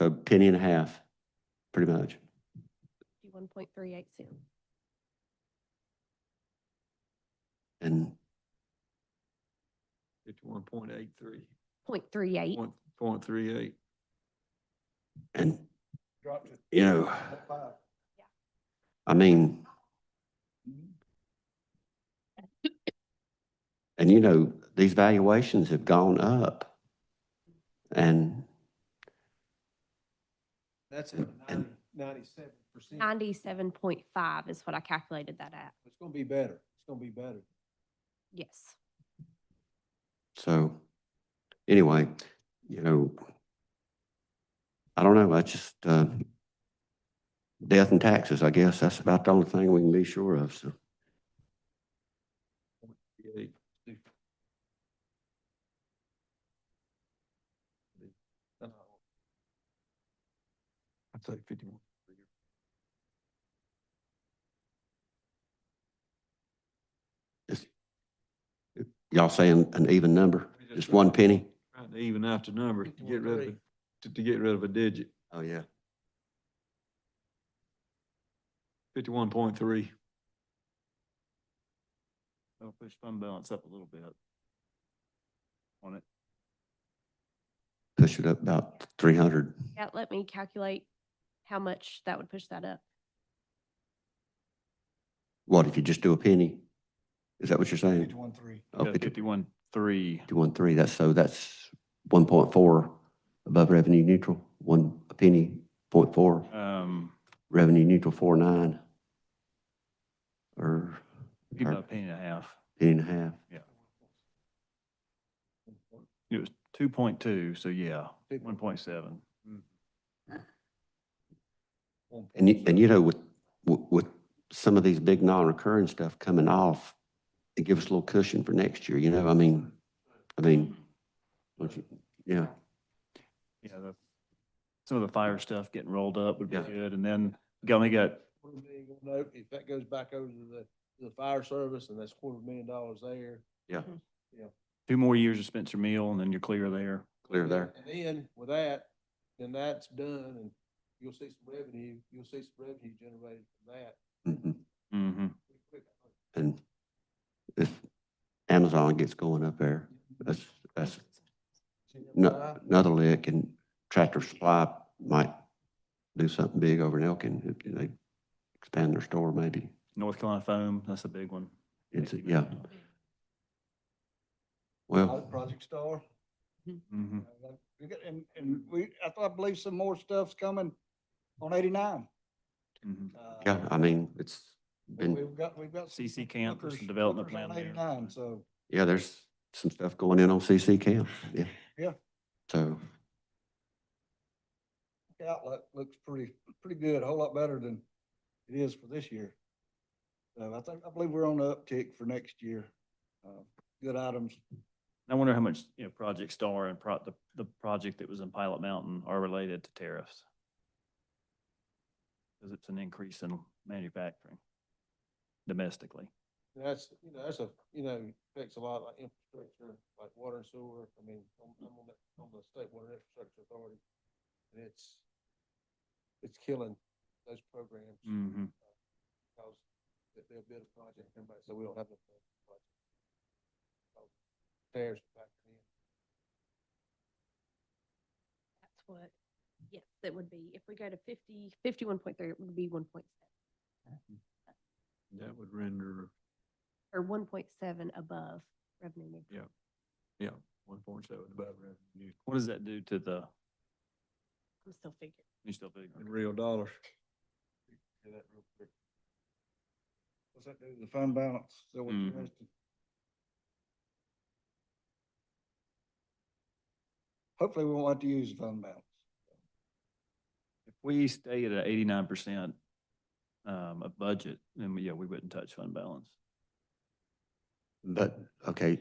a penny and a half, pretty much. One point three eight cents. And Fifty-one point eight three, Point three eight. point, point three eight. and Dropped it. you know, Up five. I mean, and you know, these valuations have gone up. And That's at And- ninety-seven percent. Ninety-seven point five is what I calculated that at. It's gonna be better. It's gonna be better. Yes. so, anyway, you know, I don't know, I just, uh, death and taxes, I guess, that's about the only thing we can be sure of, so. Eight. I'd say fifty-one. Y'all saying an even number, just one penny? Trying to even out the number to get rid of, 51.3. a- to, to get rid of a digit, Oh, yeah. fifty-one point three. I'll push fund balance up a little bit. On it, Push it up about three hundred. Yeah, let me calculate how much that would push that up. What, if you just do a penny? Is that what you're saying? Fifty-one, three. Oh, Yeah, fifty-one, three, Fifty-one, three, that's, so that's one point four above revenue neutral, one a penny, point four, um, revenue neutral, four nine. Or be about a Perfect. penny and a half. penny and a half. It was two point two, so yeah, Big one point seven. And you, and you know, with, with, with some of these big non-recurring stuff coming off, it gives us a little cushion for next year, you know, I mean, I mean, don't you, yeah, Yeah, the, some of the fire stuff getting rolled up would be Yeah. good, and then we only got, Quarter million gonna note, if that goes back over to the, to the fire service and that's quarter million dollars there. Yeah. two more years of Spencer Mill, and then you're clear there. clear there. And then with that, then that's done and you'll see some revenue, you'll see some revenue generated from that. Mhm. Mm-hmm. pretty quick. And if Amazon gets going up there, that's, that's no- another lick and Tractor Supply might do something big over in Elkin. if They expand their store maybe. North Carolina foam, that's a big one. It's, yeah. Well, Project Star. Mm-hmm. Uh, we got- And, and we, I thought, I believe some more stuff's coming on eighty-nine. mm-hmm. Uh, yeah, I mean, it's we- been, We've got, we've got. some CC camp, there's some hookers- development hookers on plan there. Eighty-nine, so yeah, there's some stuff going in on CC Camp, yeah. Yeah. So, the outlook looks pretty, pretty good, a whole lot better than it is for this year. So I think, I believe we're on the uptick for next year. Uh, Good items. I wonder how much, you know, Project Star and pro, the, the project that was in Pilot Mountain are related to tariffs. Because it's an increase in manufacturing domestically. That's, you know, that's a, you know, affects a lot like infrastructure, like water and sewer. I mean, I'm, I'm on the, on the state water infrastructure authority. And it's, it's killing those programs. Mm-hmm. Cause they- they'll build a project, everybody, so we don't have a project. So, Tears back in. That's what, yes, that would be, if we go to fifty, fifty-one point three, it would be one point seven, That would render or one point seven above revenue neutral. one point seven above revenue What does that do to the, I'm still figuring. you still figuring? in real dollars. Do that real quick. What's that do to the fund balance? So what you Mm-hmm. Mhm. asked? Hopefully, we won't have to use the fund balance. If we stayed at eighty-nine percent um, of budget, then, we- yeah, we wouldn't touch fund balance. but, okay,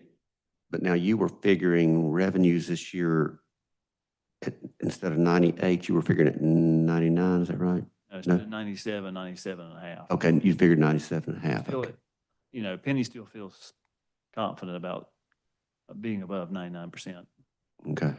but now you were figuring revenues this year at, instead of ninety-eight, you were figuring at ninety-nine, is that right? No, it's No. Uh, ninety-seven, ninety-seven and a half. Okay, and you figured ninety-seven and a half. Still, okay. it- You know, Penny still feels confident about uh, being above ninety-nine percent. Okay.